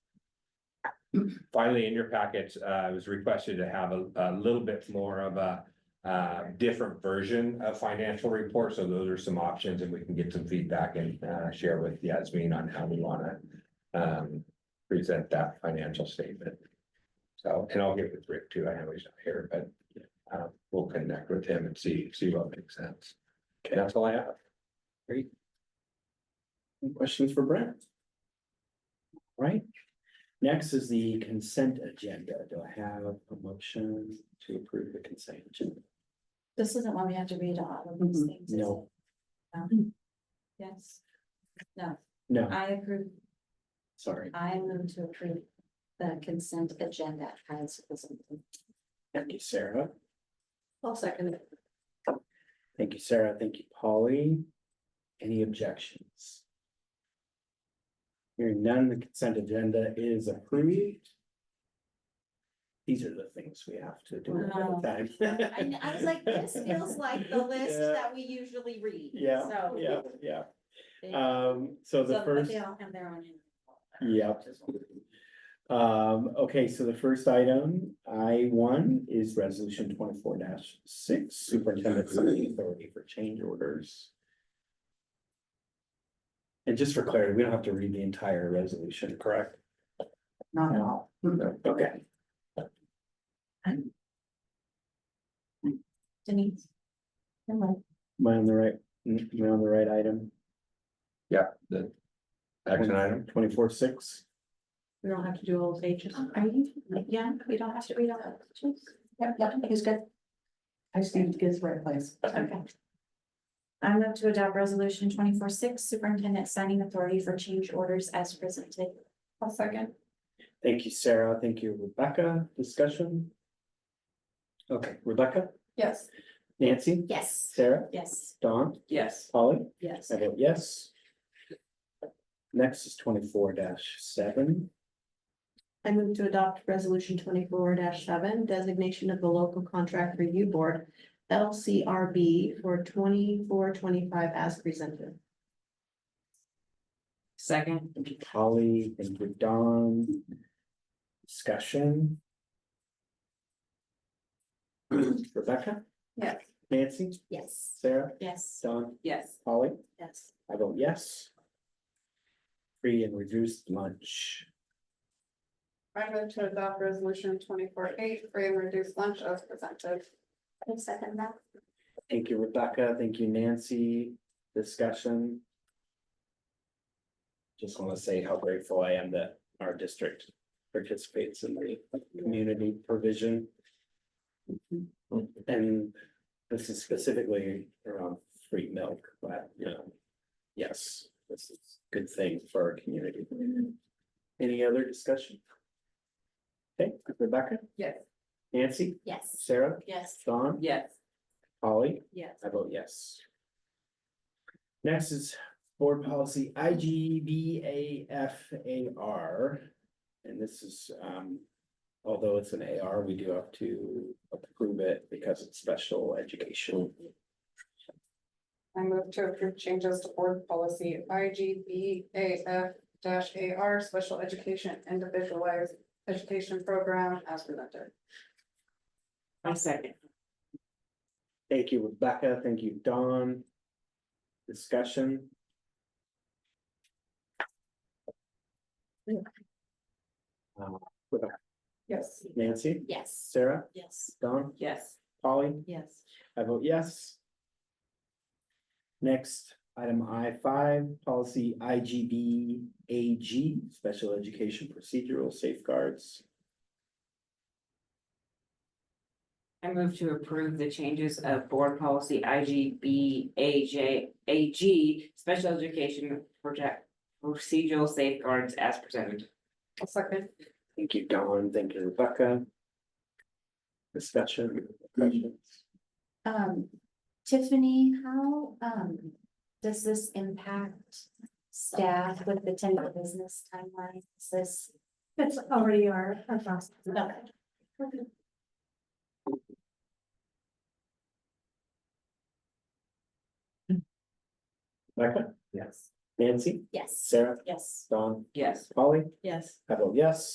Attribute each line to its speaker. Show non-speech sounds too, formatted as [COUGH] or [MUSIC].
Speaker 1: finally, in your package, uh, it was requested to have a, a little bit more of a. Uh, different version of financial report, so those are some options and we can get some feedback and, uh, share with Yasmin on how we wanna. Um, present that financial statement. So, and I'll get with Rick too, I know he's not here, but, uh, we'll connect with him and see, see what makes sense. That's all I have.
Speaker 2: Any questions for Brent? Right, next is the consent agenda. Do I have a motion to approve the consent agenda?
Speaker 3: This isn't when we have to read all of these
Speaker 2: Mhm.
Speaker 3: things. is
Speaker 2: No.
Speaker 3: it? No. Yes. No,
Speaker 2: No,
Speaker 3: I approve,
Speaker 2: sorry.
Speaker 3: I move to approve the consent agenda as presented.
Speaker 2: Thank you, Sarah.
Speaker 3: I'll second it.
Speaker 2: Thank you, Sarah. Thank you, Polly. Any objections? Hearing none, the consent agenda is approved. These are the things we have to do all [LAUGHS] the time.
Speaker 3: I, I was like, this feels like the list
Speaker 2: Yeah.
Speaker 3: that we usually read,
Speaker 2: [LAUGHS] Yeah,
Speaker 3: so.
Speaker 2: yeah, yeah.
Speaker 3: They-
Speaker 2: Um, so
Speaker 3: so,
Speaker 2: the
Speaker 3: but
Speaker 2: first.
Speaker 3: They all have their own.
Speaker 2: Yeah. Um, okay, so the first item, I one, is resolution twenty-four six, superintendent's signing authority for change orders. And just for clarity, we don't have to read the entire resolution, correct?
Speaker 3: Not at all.
Speaker 2: Okay,
Speaker 3: Denise. Am I-
Speaker 2: am I on the right, mm, am I on the right item?
Speaker 1: Action item,
Speaker 2: Twenty-four six,
Speaker 3: We don't have to do all those pages. Oh, Are you? Yeah, we don't have to read all the pages. Yep, yep, he's good. I just need to get to the right place. Okay. I move to adopt resolution twenty-four six, superintendent signing authority for change orders as presented. I'll second.
Speaker 2: thank you, Sarah, thank you, Rebecca, discussion? Okay, Rebecca,
Speaker 3: Yes.
Speaker 2: Nancy,
Speaker 3: Yes.
Speaker 2: Sarah,
Speaker 3: Yes.
Speaker 2: Dawn,
Speaker 4: Yes,
Speaker 2: Polly?
Speaker 3: Yes.
Speaker 2: I vote yes. Next is twenty-four seven.
Speaker 5: I move to adopt resolution twenty-four seven, designation of the local contract review board, LCRB for twenty-four, twenty-five as presented.
Speaker 4: second,
Speaker 2: Thank you, Polly. Thank you, Don. Discussion. [CLEARS THROAT] Rebecca,
Speaker 5: Yes.
Speaker 2: Nancy,
Speaker 3: Yes.
Speaker 2: Sarah,
Speaker 3: Yes.
Speaker 2: Don,
Speaker 4: yes,
Speaker 2: Polly,
Speaker 3: Yes.
Speaker 2: I vote yes. Free and reduced lunch.
Speaker 6: I move to adopt resolution twenty-four eight, free and reduced lunch as presented.
Speaker 3: I second that.
Speaker 2: Thank you, Rebecca. Thank you, Nancy. Discussion. Just want to say how grateful I am that our district participates in the community provision. And this is specifically around free milk, but you know, yes, this is a good thing for our community. Any other discussion? Okay, Rebecca,
Speaker 6: Yes.
Speaker 2: Nancy,
Speaker 3: Yes.
Speaker 2: Sarah,
Speaker 3: Yes.
Speaker 2: Don,
Speaker 4: yes,
Speaker 2: Polly.
Speaker 5: Yes.
Speaker 2: I vote yes. Next is board policy I G B A F A R. And this is, um, although it's an A R, we do have to approve it because it's special education.
Speaker 6: I move to approve changes to board policy I G B A F A R, special education individualized education program as presented.
Speaker 4: I second,
Speaker 2: Thank you, Rebecca. Thank you, Don. Discussion. Uh,
Speaker 6: Yes.
Speaker 2: Nancy,
Speaker 3: Yes.
Speaker 2: Sarah,
Speaker 3: Yes.
Speaker 2: Don,
Speaker 4: yes,
Speaker 2: Polly.
Speaker 5: Yes.
Speaker 2: I vote yes. Next, item I five, policy I G B A G, special education procedural safeguards.
Speaker 4: I move to approve the changes of board policy I G B A J A G. Special education project procedural safeguards as presented,
Speaker 6: I'll second.
Speaker 2: Thank you, Don. Thank you, Rebecca. Discussion. questions?
Speaker 3: Um, Tiffany, how, um, does this impact staff with the ten business timeline? Is this?
Speaker 7: That's already our, our process.
Speaker 3: Okay.
Speaker 2: Rebecca?
Speaker 4: yes,
Speaker 2: Nancy?
Speaker 3: Yes.
Speaker 2: Sarah?
Speaker 3: Yes.
Speaker 2: Don?
Speaker 4: yes.
Speaker 2: Polly?
Speaker 5: Yes.
Speaker 2: I vote yes.